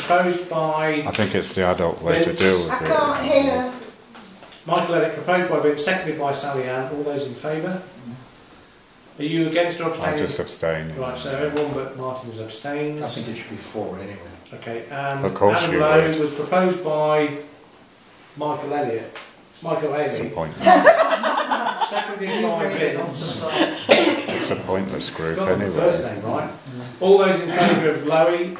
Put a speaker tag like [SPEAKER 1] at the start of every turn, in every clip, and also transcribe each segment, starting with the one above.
[SPEAKER 1] proposed by
[SPEAKER 2] I think it's the adult way to deal
[SPEAKER 3] I
[SPEAKER 2] with it.
[SPEAKER 3] can't hear.
[SPEAKER 1] Michael Elliott, proposed by Vince, seconded by Sally Ann. All those in favour? Are you against or
[SPEAKER 2] Mm-hmm. I'm
[SPEAKER 1] abstaining?
[SPEAKER 2] just abstaining.
[SPEAKER 1] Right, so everyone but Martin has abstained.
[SPEAKER 4] I think it should be four anyway.
[SPEAKER 1] Okay, um,
[SPEAKER 2] Of course
[SPEAKER 1] Adam
[SPEAKER 2] you
[SPEAKER 1] Lowe
[SPEAKER 2] would.
[SPEAKER 1] was proposed by Michael Elliott. Michael
[SPEAKER 2] It's a
[SPEAKER 1] Haley,
[SPEAKER 2] pointless,
[SPEAKER 1] seconded by Vince.
[SPEAKER 2] it's a pointless group
[SPEAKER 1] Got the first
[SPEAKER 2] anyway.
[SPEAKER 1] name right. Mm-hmm. All those in favour of Lowy?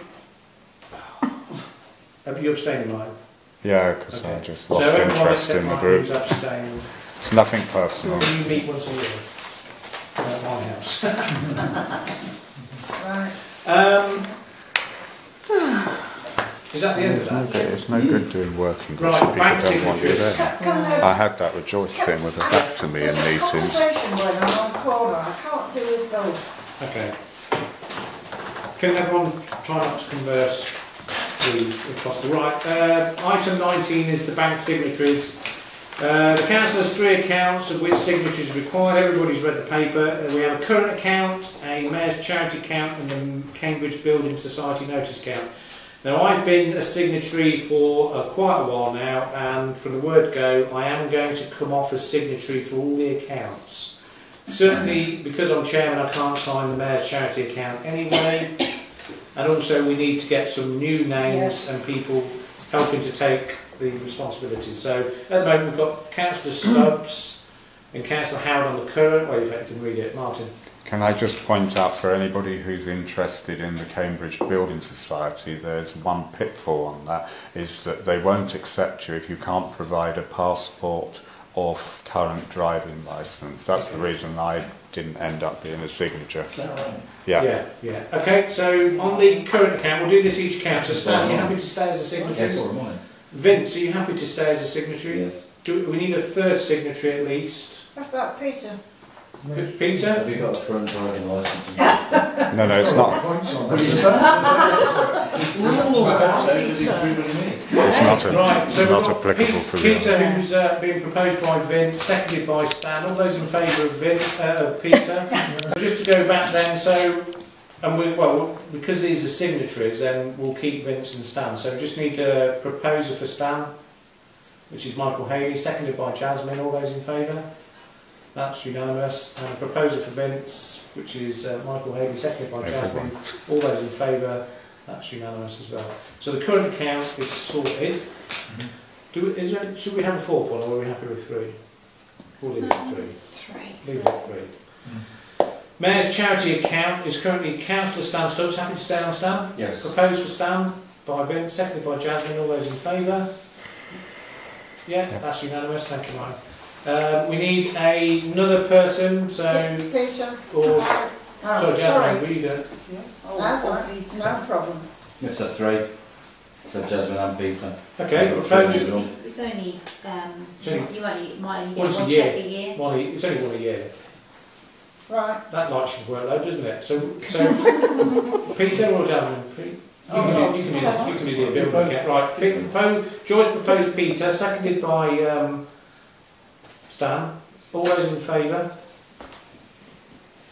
[SPEAKER 1] Have you abstained, Mike?
[SPEAKER 2] Yeah, because I
[SPEAKER 1] Okay.
[SPEAKER 2] just
[SPEAKER 1] So
[SPEAKER 2] lost
[SPEAKER 1] everyone
[SPEAKER 2] interest
[SPEAKER 1] except
[SPEAKER 2] in the
[SPEAKER 1] Mike
[SPEAKER 2] group.
[SPEAKER 1] Who's abstained?
[SPEAKER 2] It's nothing
[SPEAKER 1] You
[SPEAKER 2] personal.
[SPEAKER 1] meet once a year at my house.
[SPEAKER 3] Right.
[SPEAKER 1] Um, is that the end of
[SPEAKER 2] It's no
[SPEAKER 1] that?
[SPEAKER 2] good, it's no good doing working groups
[SPEAKER 1] Right,
[SPEAKER 2] if
[SPEAKER 1] bank
[SPEAKER 2] people don't want you
[SPEAKER 1] signatures.
[SPEAKER 2] there.
[SPEAKER 3] Can- can I-
[SPEAKER 2] I had that rejoice thing with her back to me in
[SPEAKER 3] There's a
[SPEAKER 2] meetings.
[SPEAKER 3] Conversation going on on corner. I can't do with both.
[SPEAKER 1] Okay. Can everyone try not to converse, please, if possible? Right, uh, item 19 is the bank signatories. Uh, the council has three accounts of which signatures are required. Everybody's read the paper. Uh, we have a current account, a mayor's charity account, and the Cambridge Building Society notice account. Now, I've been a signatory for uh, quite a while now, and from the word go, I am going to come off as signatory for all the accounts. Certainly, because I'm chairman, I can't sign the mayor's charity account anyway. And also, we need to get some new names
[SPEAKER 3] Yes.
[SPEAKER 1] and people helping to take the responsibility. So at the moment, we've got councillor Stubbs and councillor Howard on the current, well, if you can read it, Martin.
[SPEAKER 2] Can I just point out for anybody who's interested in the Cambridge Building Society, there's one pitfall on that, is that they won't accept you if you can't provide a passport or f- current driving licence. That's the reason I didn't end up being a signature. Yeah,
[SPEAKER 1] Yeah, yeah. Okay, so on the current account, we'll do this each account. So Stan, are you happy to stay as a signatory?
[SPEAKER 4] Yes, or mine.
[SPEAKER 1] Vince, are you happy to stay as a signatory?
[SPEAKER 5] Yes.
[SPEAKER 1] Do we, we need a third signatory at least.
[SPEAKER 3] What about Peter?
[SPEAKER 1] P- Peter?
[SPEAKER 5] Have you got a current driving licence?
[SPEAKER 2] no, no, it's not,
[SPEAKER 4] But he's done. He's all about
[SPEAKER 5] So, because he's driven me.
[SPEAKER 2] it's not, a,
[SPEAKER 1] Right, so
[SPEAKER 2] it's
[SPEAKER 1] we've
[SPEAKER 2] not
[SPEAKER 1] got
[SPEAKER 2] applicable
[SPEAKER 1] Pete-
[SPEAKER 2] for the
[SPEAKER 1] Peter, who's uh, been proposed by Vin, seconded by Stan. All those in favour of Vin, uh, of Peter. Just to go back then, so and we well because these are signatories, then we'll keep Vince and Stan. So we just need a proposer for Stan, which is Michael Haley, seconded by Jasmine. All those in favour. That's unanimous. And a proposer for Vince, which is uh, Michael Haley, seconded by Jasmine.
[SPEAKER 2] Everyone.
[SPEAKER 1] All those in favour. That's unanimous as well. So the current account is sorted. Do we, is there, should we have a fourth one, or are we happy with three? We'll leave it at three.
[SPEAKER 3] Three.
[SPEAKER 1] Leave it at three. Mayor's charity account is currently councillor Stan Stubbs. Happy to stay on Stan?
[SPEAKER 5] Yes.
[SPEAKER 1] Proposed for Stan by Vince, seconded by Jasmine. All those in favour? Yeah,
[SPEAKER 2] Yeah.
[SPEAKER 1] that's unanimous. Thank you, Mike. Uh, we need a, another person, so...
[SPEAKER 3] Peter?
[SPEAKER 1] Or,
[SPEAKER 3] Oh,
[SPEAKER 1] so Jasmine, will you do it?
[SPEAKER 3] No, one. no problem.
[SPEAKER 5] It's a three. So Jasmine and Peter.
[SPEAKER 1] Okay,
[SPEAKER 5] I've got three
[SPEAKER 1] proposed
[SPEAKER 5] new ones.
[SPEAKER 6] It's only, um,
[SPEAKER 1] Two.
[SPEAKER 6] you only, might only get
[SPEAKER 1] Once a
[SPEAKER 6] one
[SPEAKER 1] year.
[SPEAKER 6] check a year.
[SPEAKER 1] one, a- it's only one a year.
[SPEAKER 3] Right.
[SPEAKER 1] That lights your workload, doesn't it? So, so Peter or Jasmine? Pete? You
[SPEAKER 3] Oh,
[SPEAKER 1] can,
[SPEAKER 3] no.
[SPEAKER 1] do, you can do that. You can do the bit of get right. Pete proposed, Joyce proposed Peter, seconded by um, Stan. All those in favour?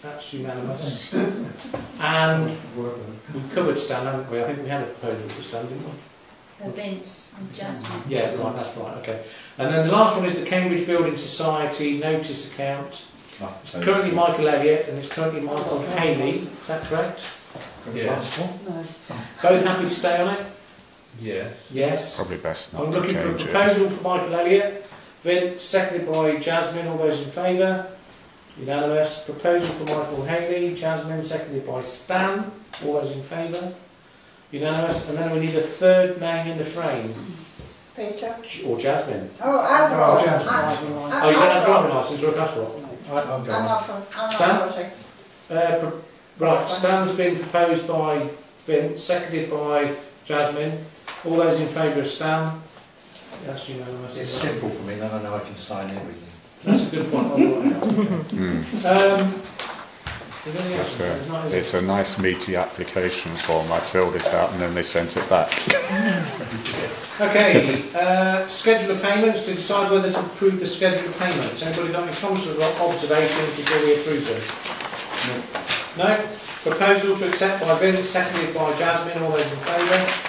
[SPEAKER 1] That's unanimous. And we covered Stan, haven't we? I think we had a proposal for Stan, didn't we?
[SPEAKER 6] For Vince and Jasmine.
[SPEAKER 1] Yeah, right, that's right, okay. And then the last one is the Cambridge Building Society notice account.
[SPEAKER 5] Ah,
[SPEAKER 1] It's
[SPEAKER 5] so-
[SPEAKER 1] currently Michael Elliott and it's currently Michael Haley, is that correct? Yes. Both happy to stay on it?
[SPEAKER 4] Yes.
[SPEAKER 1] Yes.
[SPEAKER 2] probably best
[SPEAKER 1] I'm
[SPEAKER 2] not to
[SPEAKER 1] looking for a
[SPEAKER 2] change it.
[SPEAKER 1] proposal for Michael Elliott. Vince, seconded by Jasmine, all those in favour? Unanimous. Proposal for Michael Haley, Jasmine, seconded by Stan, all those in favour? Unanimous. And then we need a third name in the frame,
[SPEAKER 3] Peter?
[SPEAKER 1] or Jasmine.
[SPEAKER 3] Oh, I've got
[SPEAKER 4] Oh,
[SPEAKER 3] it.
[SPEAKER 4] Jasmine.
[SPEAKER 3] I- I-
[SPEAKER 1] Oh, you don't have
[SPEAKER 3] I've
[SPEAKER 1] a
[SPEAKER 3] got
[SPEAKER 1] driving licence or a passport?
[SPEAKER 4] I'm
[SPEAKER 3] it. I'm
[SPEAKER 4] going.
[SPEAKER 3] off, I'm off.
[SPEAKER 1] Stan?
[SPEAKER 3] it.
[SPEAKER 1] Uh, pro- right, Stan's been proposed by Vince, seconded by Jasmine. All those in favour of Stan? That's unanimous.
[SPEAKER 4] It's simple for me, then I know I can sign everything.
[SPEAKER 1] That's a good point. I'll write it down.
[SPEAKER 2] Mm.
[SPEAKER 1] Um, is there anything else?
[SPEAKER 2] It's
[SPEAKER 1] There's not,
[SPEAKER 2] a,
[SPEAKER 1] is there?
[SPEAKER 2] it's a nice meaty application form. I filled it out and then they sent it back.
[SPEAKER 1] Okay, uh, schedule of payments, to decide whether to approve the schedule of payments. Anybody got any comments or observations before we approve them? No. No? Proposal to accept by Vince, seconded by Jasmine, all those in favour?